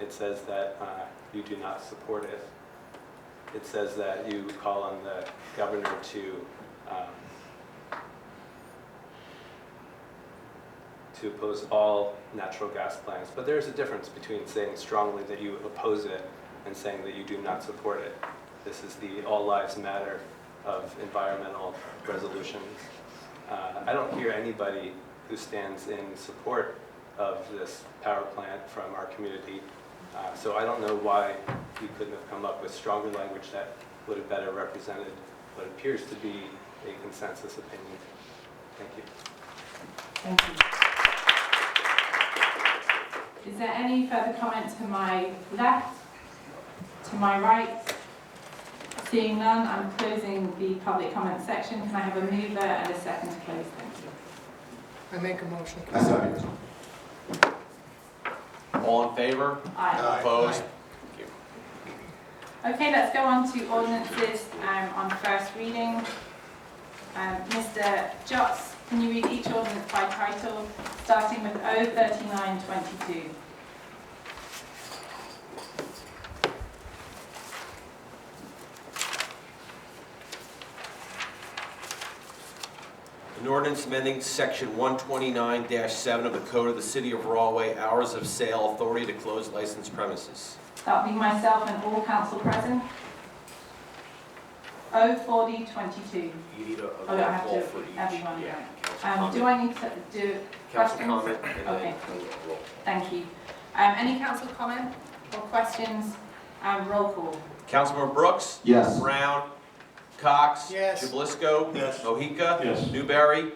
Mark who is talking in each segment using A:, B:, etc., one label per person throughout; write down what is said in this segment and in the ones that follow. A: It says that uh, you do not support it. It says that you call on the governor to, um, to oppose all natural gas plants. But there is a difference between saying strongly that you oppose it and saying that you do not support it. This is the all lives matter of environmental resolutions. Uh, I don't hear anybody who stands in support of this power plant from our community. Uh, So I don't know why you couldn't have come up with stronger language that would have better represented what appears to be a consensus opinion. Thank you.
B: Thank you. Is there any further comment to my left, to my right? Seeing none, I'm closing the public comment section. Can I have a mover and a second to close? Thank you.
C: I make a motion.
D: I second.
E: All in favor?
B: Aye.
E: Opposed?
B: Okay, let's go on to ordinances um, on first reading. Um, Mr. Jots, can you read each ordinance by title, starting with O thirty-nine twenty-two?
E: An ordinance amending section 129-7 of the Code of the City of Rawley, hours of sale, authority to close licensed premises.
B: That'll be myself and all council present. O forty twenty-two.
E: You need a
B: Oh, I have
E: roll
B: to-
E: for each.
B: everyone,
E: Yeah,
B: Um,
E: council
B: do
E: comment.
B: I need to do,
E: Council
B: questions?
E: comment, and
B: Okay.
E: then a roll.
B: thank you. Um, any council comment or questions? Um, roll call.
E: Councilman Brooks?
D: Yes.
E: Brown? Cox?
C: Yes.
E: Jubalisco?
D: Yes.
E: Mohica?
D: Yes.
E: Newberry?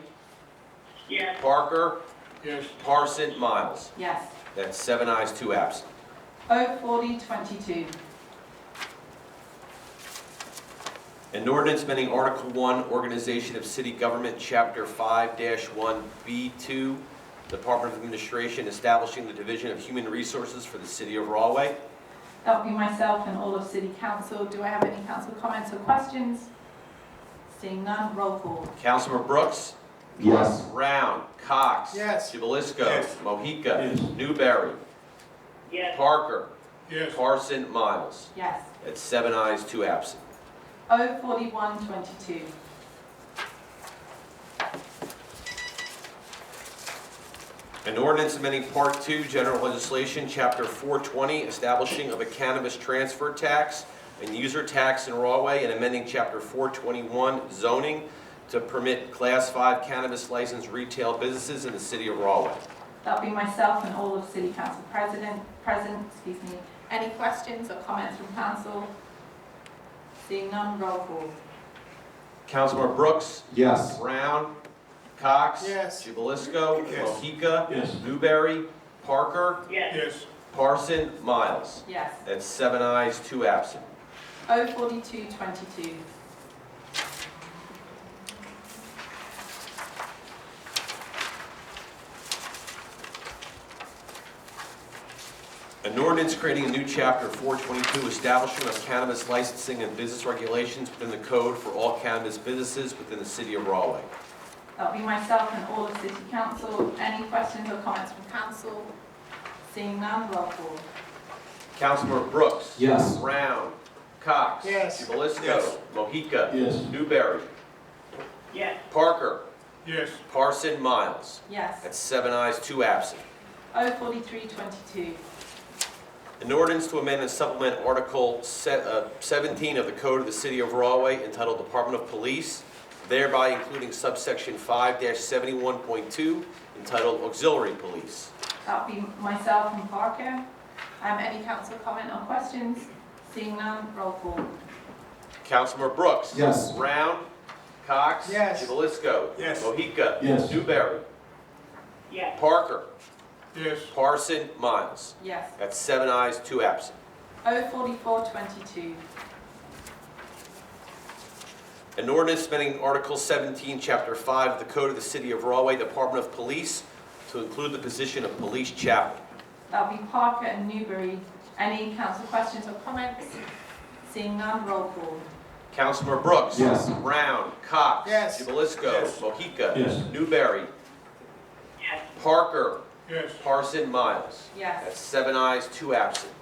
E: Parker?
C: Yes.
E: Parson? Miles?
B: Yes.
E: That's seven ayes, two absent.
B: O forty twenty-two.
E: An ordinance amending Article 1, Organization of City Government, Chapter 5-1B2, Department of Administration, establishing the Division of Human Resources for the City of Rawley.
B: That'll be myself and all of city council. Do I have any council comments or questions? Seeing none, roll call.
E: Councilman Brooks?
D: Yes.
E: Brown? Cox?
C: Yes.
E: Jubalisco?
D: Yes.
E: Mohica?
D: Yes.
E: Newberry? Parker?
C: Yes.
E: Parson? Miles?
B: Yes.
E: That's seven ayes, two absent.
B: O forty-one twenty-two.
E: An ordinance amending Part 2, General Legislation, Chapter 420, establishing of a cannabis transfer tax and user tax in Rawway, and amending Chapter 421 zoning to permit Class 5 cannabis licensed retail businesses in the city of Rawway.
B: That'll be myself and all of City Council President, present, excuse me. Any questions or comments from council? Seeing none, roll call.
E: Councilmember Brooks?
D: Yes.
E: Brown? Cox?
C: Yes.
E: Jubalisco?
D: Yes.
E: Mohica?
D: Yes.
E: Newberry? Parker?
C: Yes.
E: Parson? Miles?
B: Yes.
E: That's seven ayes, two absent.
B: O forty-two twenty-two.
E: An ordinance creating a new chapter 422, establishment of cannabis licensing and business regulations within the code for all cannabis businesses within the city of Rawley.
B: That'll be myself and all of City Council. Any questions or comments from council? Seeing none, roll call.
E: Councilmember Brooks.
D: Yes.
E: Brown. Cox.
C: Yes.
E: Jubalisco.
D: Yes.
E: Mohica.
D: Yes.
E: Newberry. Parker.
C: Yes.
E: Parson. Miles.
B: Yes.
E: That's seven ayes, two absent.
B: O forty-three twenty-two.
E: An ordinance to amend and supplement Article se- uh, 17 of the Code of the City of Rawley entitled Department of Police, thereby including subsection 5-71.2 entitled Auxiliary Police.
B: That'll be myself and Parker. Um, any council comment or questions? Seeing none, roll call.
E: Councilmember Brooks.
D: Yes.
E: Brown. Cox.
C: Yes.
E: Jubalisco.
C: Yes.
E: Mohica.
D: Yes.
E: Newberry. Parker.
C: Yes.
E: Parson. Miles.
B: Yes.
E: That's seven ayes, two absent.
B: O forty-four twenty-two.
E: An ordinance amending Article 17, Chapter 5 of the Code of the City of Rawley, Department of Police, to include the position of police chaplain.
B: That'll be Parker and Newbury. Any council questions or comments? Seeing none, roll call.
E: Councilmember Brooks.
D: Yes.
E: Brown. Cox.
C: Yes.
E: Jubalisco.
C: Yes.
E: Mohica.
D: Yes.
E: Newberry. Parker.
C: yes.
E: Parson, Miles.
B: Yes.
E: That's seven ayes, two absent.